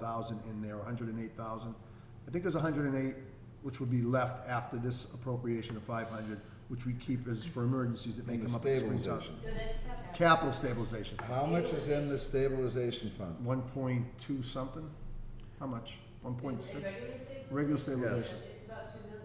thousand in there, a hundred and eight thousand. I think there's a hundred and eight, which would be left after this appropriation of five hundred, which we keep as for emergencies that may And the come up at springtime. stabilization. So that's capital. Capital stabilization, How much is in the stabilization fund? one point two something? How much? One point Is it six? regular state? Regular stabilization, Yes. It's about two million.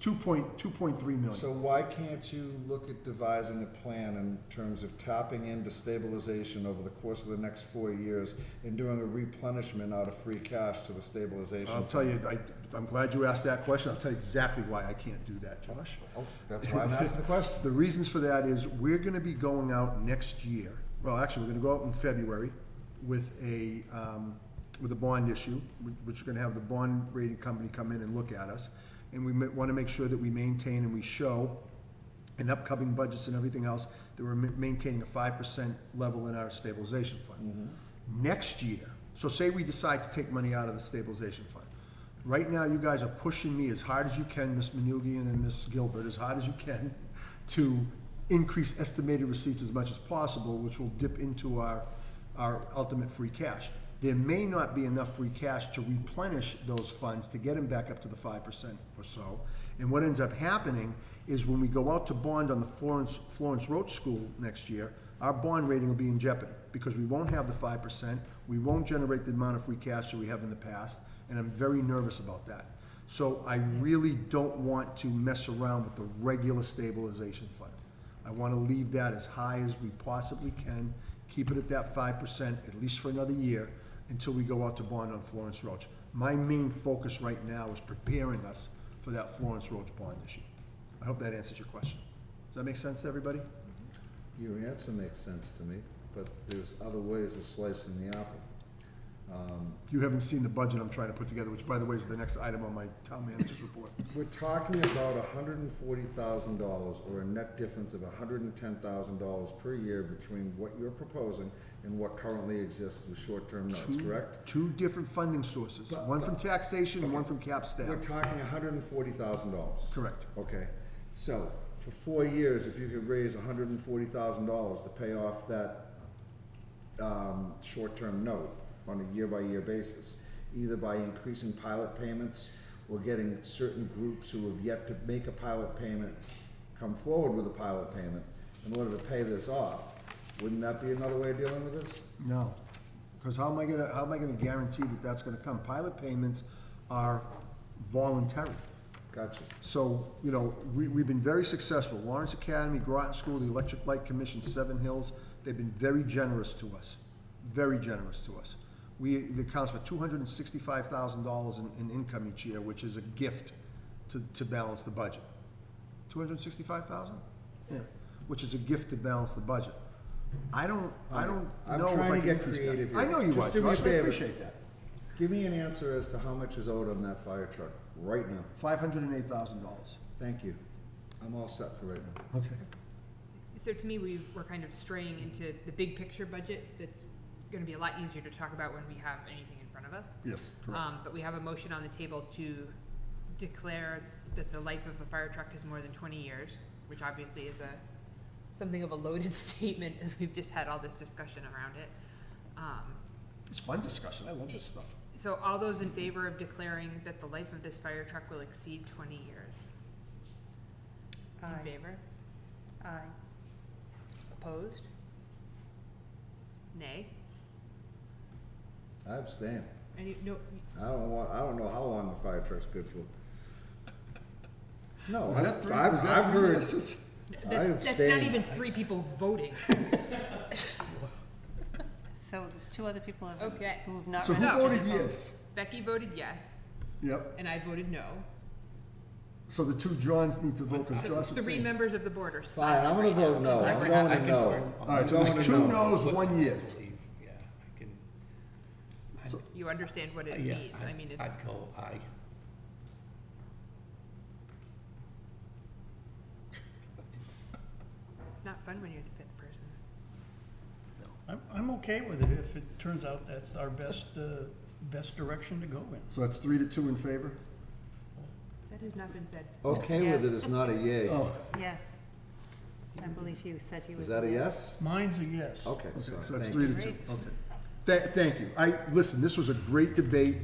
two point, two point three million. So why can't you look at devising a plan in terms of tapping into stabilization over the course of the next four years and doing a replenishment out of free cash to the stabilization? I'll tell you, I, I'm glad you asked that question. I'll tell you exactly why I can't do that, Josh. Oh, That's why I'm asking the question. The reasons for that is we're gonna be going out next year, well, actually, we're gonna go out in February with a, um, with a bond issue, which- which we're gonna have the bond rating company come in and look at us. And we ma- wanna make sure that we maintain and we show in upcoming budgets and everything else, that we're ma- maintaining a five percent level in our stabilization fund. Mm-hmm. Next year, so say we decide to take money out of the stabilization fund. Right now, you guys are pushing me as hard as you can, Ms. Manugian and Ms. Gilbert, as hard as you can, to increase estimated receipts as much as possible, which will dip into our, our ultimate free cash. There may not be enough free cash to replenish those funds to get them back up to the five percent or so. And what ends up happening is when we go out to bond on the Florence, Florence Roach School next year, our bond rating will be in jeopardy, because we won't have the five percent, we won't generate the amount of free cash that we have in the past, and I'm very nervous about that. So I really don't want to mess around with the regular stabilization fund. I wanna leave that as high as we possibly can, keep it at that five percent, at least for another year, until we go out to bond on Florence Roach. My main focus right now is preparing us for that Florence Roach bond issue. I hope that answers your question. Does that make sense to everybody? Your answer makes sense to me, but there's other ways of slicing the apple. You haven't seen the budget I'm trying to put together, which by the way is the next item on my town manager's report. We're talking about hundred and forty thousand dollars, or a net difference of hundred and ten thousand dollars per year between what you're proposing and what currently exists with short-term notes, Two- correct? Two different funding sources, But- one from taxation and one from cap We're staff. talking hundred and forty thousand dollars. Correct. Okay, so, for four years, if you could raise hundred and forty thousand dollars to pay off that, um, short-term note on a year-by-year basis, either by increasing pilot payments or getting certain groups who have yet to make a pilot payment come forward with a pilot payment in order to pay this off, wouldn't that be another way of dealing with this? No, because how am I gonna, how am I gonna guarantee that that's gonna come? Pilot payments are voluntary. Gotcha. So, you know, we, we've been very successful. Lawrence Academy, Groton School, the Electric Light Commission, Seven Hills, they've been very generous to us, very generous to us. We, it accounts for two hundred and sixty-five thousand dollars in, in income each year, which is a gift to, to balance the budget. Two hundred and sixty-five thousand? Yeah, which is a gift to balance the budget. I don't, I don't I'm know if trying I to can get increase creative that. here. I know you Just are, do me a Josh, I favor. appreciate that. Give me an answer as to how much is owed on that fire truck right now. Five hundred and eight thousand dollars. Thank you. I'm all set for right now. Okay. So to me, we were kind of straying into the big picture budget that's gonna be a lot easier to talk about when we have anything in front of us. Yes, correct. Um, but we have a motion on the table to declare that the life of a fire truck is more than twenty years, which obviously is a, something of a loaded statement, as we've just had all this discussion around it. Um, It's fun discussion, I love this stuff. so all those in favor of declaring that the life of this fire truck will exceed twenty years? Aye. In favor? Aye. Opposed? Nay? I abstain. And you, no, I don't want, I don't know how long the fire truck's good for. No, Was that I've, three- I've was that I've three heard, yeses? I that's, that's not abstain. even three people voting. So there's two other people who have- Okay. who have not. So who registered voted to vote. yes? Becky voted yes, Yep, and I voted no. so the two Johns need to vote because Josh The Three abstained. members of the board are fine, silent I'm gonna right now, vote no. because I'm we're going not- to no. All I'm right, so going there's to two no. no's, one yes. Yeah, I can, You understand what it yeah, means, I mean, I'd, it's, I'd go aye. it's not fun when you're the fifth person. I'm, I'm okay with it if it turns out that's our best, uh, best direction to go in. So that's three to two in favor? That has not been said. Okay with it is not a yay. Oh, Yes. I believe you said he was. Is that a yes? Mine's a yes. Okay, okay, so so that's thank three you. to two, okay. Tha- thank you. I, listen, this was a great debate.